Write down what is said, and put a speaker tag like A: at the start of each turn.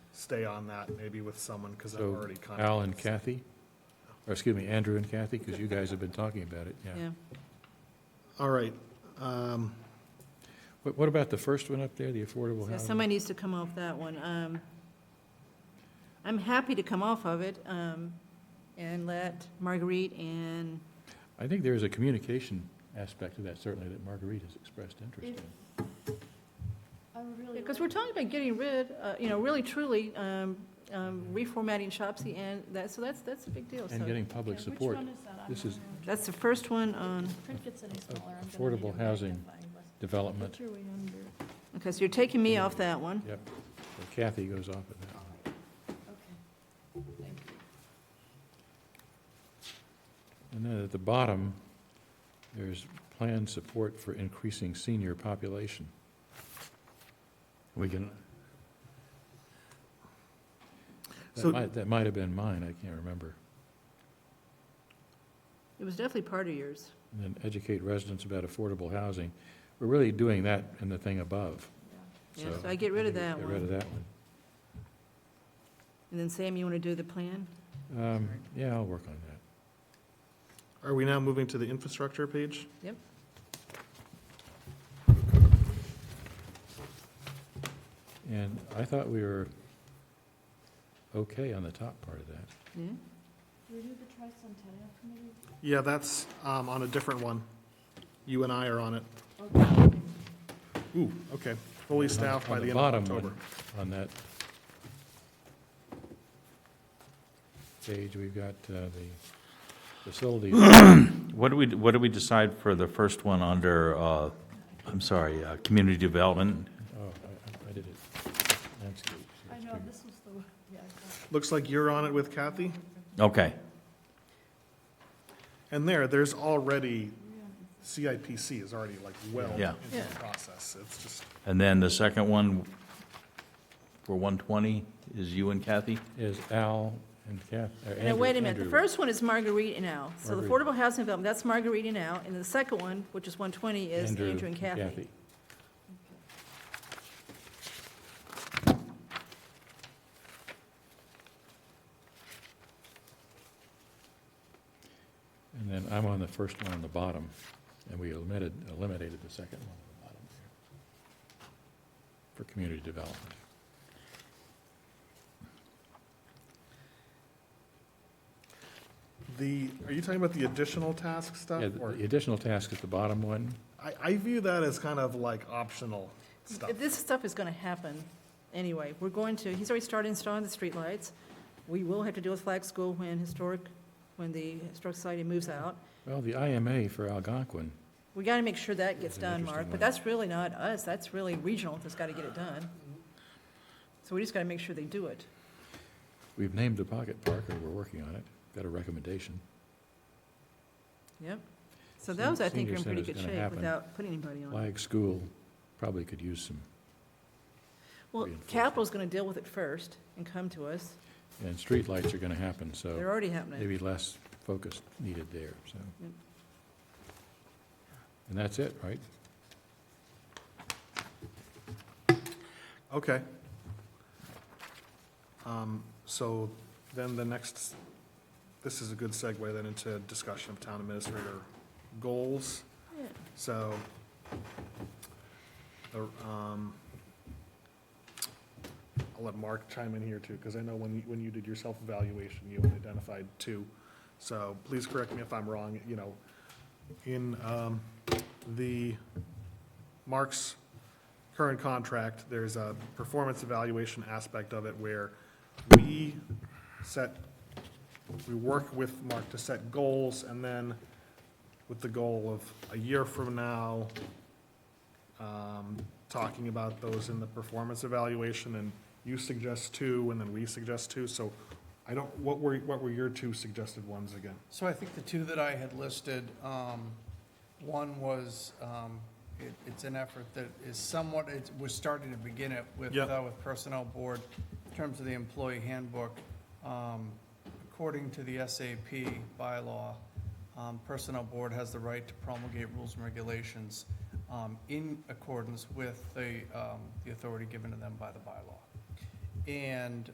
A: stay on that maybe with someone, because I've
B: So
A: already contacted.
B: Al and Kathy, or excuse me, Andrew and Kathy, because you guys have been talking about it, yeah.
C: yeah.
A: All right, um,
B: What, what about the first one up there, the affordable
C: So
B: housing?
C: somebody needs to come off that one. Um, I'm happy to come off of it um, and let Marguerite and,
B: I think there is a communication aspect to that, certainly, that Marguerite has expressed interest in.
C: because we're talking about getting rid, uh, you know, really truly um, um, reformatting Shopsy and that, so that's, that's a big deal.
B: Mm-hmm. And
C: So
B: getting public support.
D: Which one is that? I'm
B: This
D: not
B: is
D: on which
C: that's um, the first one on,
D: one. Print gets any smaller. I'm gonna
B: affordable
D: need a
B: housing
D: magnifying glass.
B: Development,
D: Which are we under?
C: okay, so you're taking me off that one.
B: yep. So Kathy goes off of that.
D: Okay, thank you.
B: And then at the bottom, there's planned support for increasing senior population. We can. That
A: So-
B: might, that might have been mine, I can't remember.
C: It was definitely part of yours.
B: And then educate residents about affordable housing. We're really doing that in the thing above.
D: Yeah.
C: Yeah, so I get rid of that
B: Get rid of
C: one.
B: that one.
C: And then Sam, you want to do the plan?
B: Um, Yeah, I'll work on that.
A: are we now moving to the infrastructure page?
C: Yep.
B: And I thought we were okay on the top part of that.
C: Yeah?
D: Do we do the tricentennial committee?
A: Yeah, that's, um, on a different one. You and I are on it.
D: Okay.
A: Ooh, okay, fully staffed by
B: On
A: the end of
B: bottom
A: October.
B: one, On that page, we've got uh, the Oh, facilities.
E: What do we, what do we decide for the first one under, uh, I'm sorry, uh, community development?
B: Oh, I- I- I did it. Landscape.
D: I know, this was the, one- yeah. I thought-
A: Looks like you're on it with Kathy.
E: Okay,
A: And there, there's already, CIPC is already like well
E: Yeah.
A: into the process. It's just,
E: and then the second one for 120 is you and Kathy?
B: Is Al and Kath, or
C: Now,
B: Andrew.
C: wait a minute, the
B: Andrew.
C: first one is Marguerite and Al. So the
B: Marguerite.
C: affordable housing development, that's Marguerite and Al, and the second one, which is 120, is Andrew and Kathy.
B: And then I'm on the first one on the bottom, and we eliminated, eliminated the second one on the bottom there for community development.
A: the, are you talking about the additional task stuff?
B: Yeah, the-
A: Or,
B: the additional task at the bottom one,
A: I, I view that as kind of like optional stuff.
C: If This stuff is going to happen anyway. We're going to, he's already started installing the streetlights. We will have to deal with Flag School when historic, when the Historic Society moves out.
B: well, the IMA for Algonquin,
C: We got to make sure that gets
B: That's an
C: done,
B: interesting
C: Mark,
B: one.
C: but that's really not us. That's really regional that's got to get it done. So we just got to make sure they do it.
B: we've named the pocket park, or we're working on it, got a recommendation.
C: Yep. So
B: Sen-
C: those, I think,
B: senior
C: are in pretty
B: center's
C: good
B: gonna
C: shape
B: happen.
C: without putting anybody on. it.
B: Flag School probably could use some,
C: Well,
B: reinforcement.
C: capital's going to deal with it first and come to us.
B: and streetlights are going to happen,
C: They're
B: so
C: already happening.
B: maybe less focus needed there, so.
C: Yep.
B: And that's it, right?
A: Okay. Um, So then the next, this is a good segue then into discussion of town administrator goals.
C: Yeah.
A: So, the, um, I'll let Mark chime in here too, because I know when, you- when you did your self-evaluation, you identified two. So please correct me if I'm wrong, you know, in um, the, Mark's current contract, there's a performance evaluation aspect of it where we set, we work with Mark to set goals, and then with the goal of a year from now, um, talking about those in the performance evaluation, and you suggest two, and then we suggest two, so I don't, what were, what were your two suggested ones again?
F: So I think the two that I had listed, um, one was, um, it, it's an effort that is somewhat, it was starting to begin it with,
A: Yep.
F: uh, with Personnel Board in terms of the employee handbook. Um, according to the SAP bylaw, um, Personnel Board has the right to promulgate rules and regulations, um, in accordance with the, um, the authority given to them by the bylaw. And,